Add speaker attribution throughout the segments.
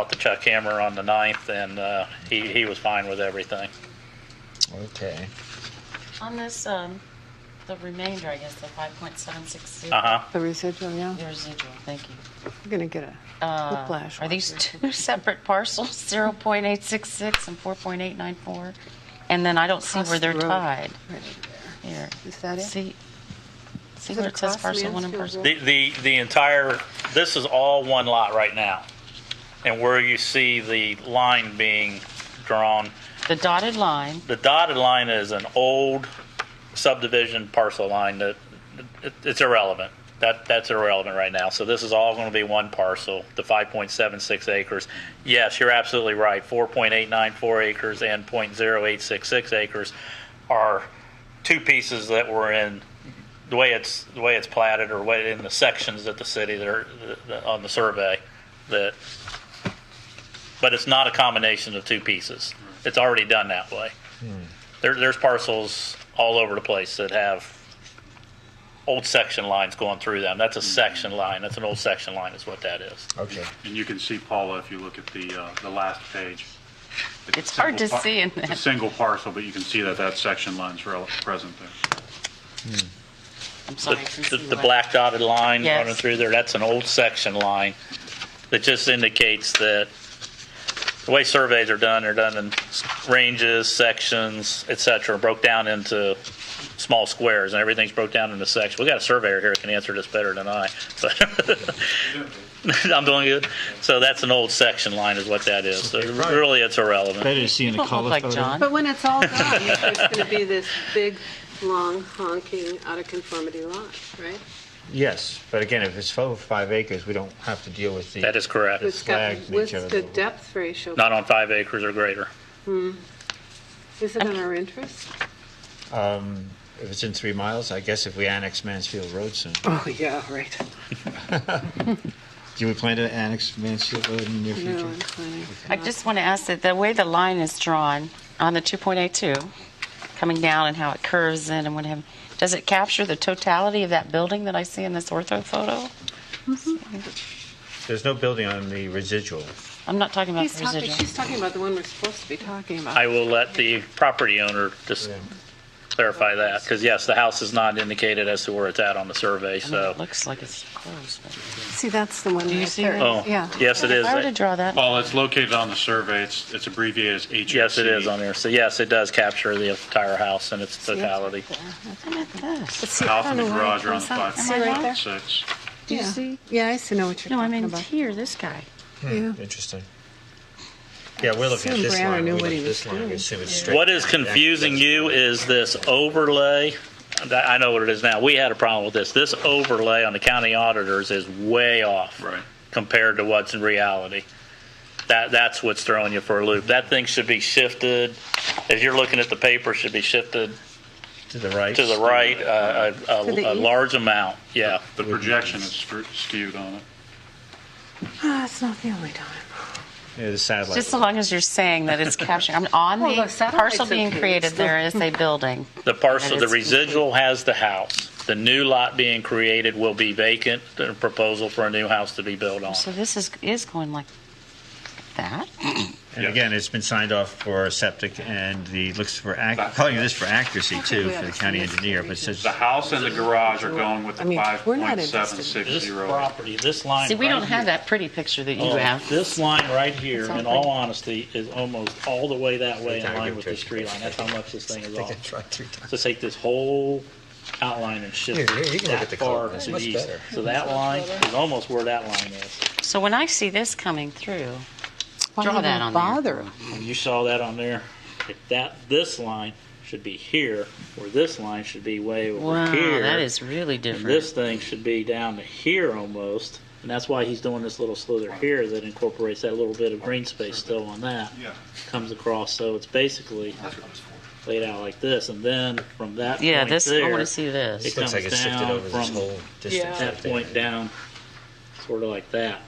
Speaker 1: talked to Chuck Hammer on the 9th, and uh, he, he was fine with everything.
Speaker 2: Okay.
Speaker 3: On this, um, the remainder, I guess, the five point seven six zero.
Speaker 1: Uh-huh.
Speaker 4: The residual, yeah.
Speaker 3: The residual, thank you.
Speaker 4: We're gonna get a
Speaker 3: Uh,
Speaker 4: whiplash.
Speaker 3: Are these two separate parcels, zero point eight six six and four point eight nine four? And then I don't see
Speaker 4: Across
Speaker 3: where they're
Speaker 4: the road.
Speaker 3: tied.
Speaker 4: Right over
Speaker 3: Here.
Speaker 4: Is that it?
Speaker 3: See, see
Speaker 4: Is it
Speaker 3: where it says
Speaker 4: across
Speaker 3: parcel one and
Speaker 4: Mansfield
Speaker 3: parcel?
Speaker 4: Road?
Speaker 1: The, the, the entire, this is all one lot right now. And where you see the line being drawn,
Speaker 3: The dotted line,
Speaker 1: the dotted line is an old subdivision parcel line that it, it's irrelevant. That that's irrelevant right now. So this is all going to be one parcel, the 5.76 acres. Yes, you're absolutely right. 4.894 acres and 0.0866 acres are two pieces that were in the way it's the way it's platted or way in the sections that the city that are that- on the survey that but it's not a combination of two pieces. It's already done that way. There, there's parcels all over the place that have old section lines going through them. That's a section line. That's an old section line, is what that is.
Speaker 2: Okay.
Speaker 5: And you can see Paula if you look at the, uh, the last page. a
Speaker 3: It's hard
Speaker 5: single
Speaker 3: to
Speaker 5: par-
Speaker 3: see in
Speaker 5: It's a
Speaker 3: that.
Speaker 5: single parcel, but you can see that that section line's rel- present there.
Speaker 3: I'm
Speaker 1: The,
Speaker 3: sorry. I can
Speaker 1: the,
Speaker 3: see
Speaker 1: the
Speaker 3: what-
Speaker 1: black dotted line
Speaker 3: Yes.
Speaker 1: running through there, that's an old section line that just indicates that the way surveys are done, they're done in s- ranges, sections, et cetera, broke down into small squares, and everything's broke down into sections. We got a surveyor here that can answer this better than I, but I'm doing good. So that's an old section line is what that is. So
Speaker 2: right.
Speaker 1: Really, it's irrelevant.
Speaker 6: Better to see in a
Speaker 3: Don't look
Speaker 6: color
Speaker 3: like
Speaker 6: photo.
Speaker 3: John.
Speaker 4: But when it's all done, it's gonna be this big, long, honking, out of conformity lot, right?
Speaker 2: Yes, but again, if it's over five acres, we don't have to deal with the.
Speaker 1: That is correct.
Speaker 4: It's got,
Speaker 2: flags and
Speaker 4: with
Speaker 2: each other.
Speaker 4: the depth ratio,
Speaker 1: Not on five acres or greater.
Speaker 4: is it in our interest?
Speaker 2: If it's in three miles, I guess if we annex Mansfield Road soon.
Speaker 4: Oh, yeah, right.
Speaker 2: Do we plan to annex Mansfield Road in the near
Speaker 4: No,
Speaker 2: future?
Speaker 4: I'm planning.
Speaker 3: I just want to ask that the way the line is drawn on the 2.82, coming down and how it curves in and what have, does it capture the totality of that building that I see in this ortho photo?
Speaker 2: There's no building on the residual.
Speaker 3: I'm not talking about
Speaker 4: He's
Speaker 3: the
Speaker 4: talking,
Speaker 3: residual.
Speaker 4: she's talking about the one we're supposed to be talking about.
Speaker 1: I will let the property owner just clarify that, because yes, the house is not indicated as to where it's at on the survey,
Speaker 3: I mean,
Speaker 1: so.
Speaker 3: it looks like it's closed, but
Speaker 4: See, that's the one
Speaker 3: you
Speaker 4: right
Speaker 3: see
Speaker 4: there.
Speaker 3: that?
Speaker 1: Oh,
Speaker 4: Yeah.
Speaker 1: yes, it
Speaker 3: if I were to
Speaker 1: is.
Speaker 3: draw that,
Speaker 5: Paula, it's located on the survey. It's, it's abbreviated as E HUC.
Speaker 1: Yes, it is on there. So yes, it does capture the entire house in its
Speaker 4: it's
Speaker 1: totality.
Speaker 3: look at this.
Speaker 4: But see,
Speaker 5: The
Speaker 4: I
Speaker 5: house
Speaker 4: don't
Speaker 5: and the
Speaker 4: know why it
Speaker 5: garage are on the
Speaker 4: comes out.
Speaker 5: five.
Speaker 4: See right there?
Speaker 5: Six.
Speaker 4: Do
Speaker 3: you see?
Speaker 4: Yeah, I see, know what you're
Speaker 3: No, I
Speaker 4: talking
Speaker 3: mean,
Speaker 4: about.
Speaker 3: here, this guy.
Speaker 4: Yeah.
Speaker 2: Interesting. Yeah, we're looking at
Speaker 4: Assume
Speaker 2: this
Speaker 4: Brown
Speaker 2: line.
Speaker 4: knew
Speaker 2: we
Speaker 4: what
Speaker 2: look
Speaker 4: he
Speaker 2: at
Speaker 4: was
Speaker 2: this line, we assume it's straight.
Speaker 1: What is confusing you is this overlay. I know what it is now. We had a problem with this. This overlay on the county auditors is way off.
Speaker 5: Right.
Speaker 1: compared to what's in reality. That that's what's throwing you for a loop. That thing should be shifted. As you're looking at the paper, should be shifted
Speaker 2: To the right.
Speaker 1: to the right uh, a, a,
Speaker 4: To the
Speaker 1: a
Speaker 4: east?
Speaker 1: large amount. Yeah.
Speaker 5: The projection is screw- skewed on it.
Speaker 4: Ah, it's not the only time.
Speaker 2: Yeah, the satellite.
Speaker 3: Just so long as you're saying that it's capturing, I'm on
Speaker 4: Well, the
Speaker 3: the
Speaker 4: satellite's
Speaker 3: parcel being
Speaker 4: okay,
Speaker 3: created,
Speaker 4: it's not-
Speaker 3: there is a building.
Speaker 1: The parcel,
Speaker 3: And
Speaker 1: the
Speaker 3: it's
Speaker 1: residual has the house. The new lot being created will be vacant. The proposal for a new house to be built on.
Speaker 3: So this is, is going like that?
Speaker 2: And again, it's been signed off for septic and the, looks for, ac- calling this for accuracy too, for the county engineer, but it says,
Speaker 5: The house and the garage are going with
Speaker 4: I
Speaker 5: the
Speaker 4: mean, we're not interested.
Speaker 5: 5.760.
Speaker 1: this line. um,
Speaker 3: See, we don't have that pretty picture that
Speaker 1: Oh,
Speaker 3: you have.
Speaker 1: This line right here,
Speaker 3: It's all
Speaker 1: in all honesty, is almost all the way that way in line with the
Speaker 2: Picture.
Speaker 1: street line. That's how much this thing is
Speaker 2: I
Speaker 1: off.
Speaker 2: think I tried three times.
Speaker 1: So take this whole outline and shift
Speaker 2: Here, here, you
Speaker 1: it
Speaker 2: can look
Speaker 1: that
Speaker 2: at the
Speaker 1: far
Speaker 2: color.
Speaker 1: to
Speaker 2: That's
Speaker 1: the
Speaker 2: much
Speaker 1: east.
Speaker 2: better.
Speaker 1: So that line is almost where that line is.
Speaker 3: So when I see this coming through,
Speaker 4: Why
Speaker 3: Draw
Speaker 4: even
Speaker 3: that on there.
Speaker 4: bother?
Speaker 1: And you saw that on there. If that, this line should be here, or this line should be way over
Speaker 3: wow,
Speaker 1: here.
Speaker 3: that is really
Speaker 1: And
Speaker 3: different.
Speaker 1: this thing should be down to here almost. And that's why he's doing this little slither here that incorporates that little bit of green space still on that.
Speaker 5: Yeah.
Speaker 1: Comes across, so it's basically laid out like this. And then from that
Speaker 3: yeah,
Speaker 1: point
Speaker 3: this I
Speaker 1: there,
Speaker 3: want to see this.
Speaker 1: it
Speaker 2: This looks like
Speaker 1: comes
Speaker 2: it's shifted
Speaker 1: down
Speaker 2: over this
Speaker 1: from
Speaker 2: whole distance.
Speaker 1: that
Speaker 2: right there.
Speaker 1: point down, sort of like that.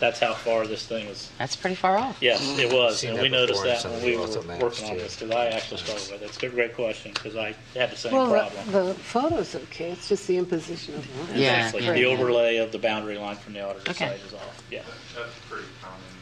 Speaker 1: That's how far this thing is.
Speaker 3: That's pretty far off.
Speaker 1: Yes, it was,
Speaker 6: Seen
Speaker 1: and
Speaker 6: that
Speaker 1: we noticed
Speaker 6: before in
Speaker 1: that
Speaker 6: some
Speaker 1: when
Speaker 6: of
Speaker 1: we
Speaker 6: the
Speaker 1: were
Speaker 6: auto maps,
Speaker 1: working on
Speaker 6: too.
Speaker 1: this, because I actually struggled with it. It's a great question, because I had the same
Speaker 4: Well,
Speaker 1: problem.
Speaker 4: the- the photo's okay, it's just the imposition of line.
Speaker 3: Yeah,
Speaker 1: Basically,
Speaker 3: yeah,
Speaker 1: The
Speaker 3: yeah.
Speaker 1: overlay of the boundary line from the auditor's
Speaker 3: Okay.
Speaker 1: side is off, yeah.
Speaker 5: That's pretty common.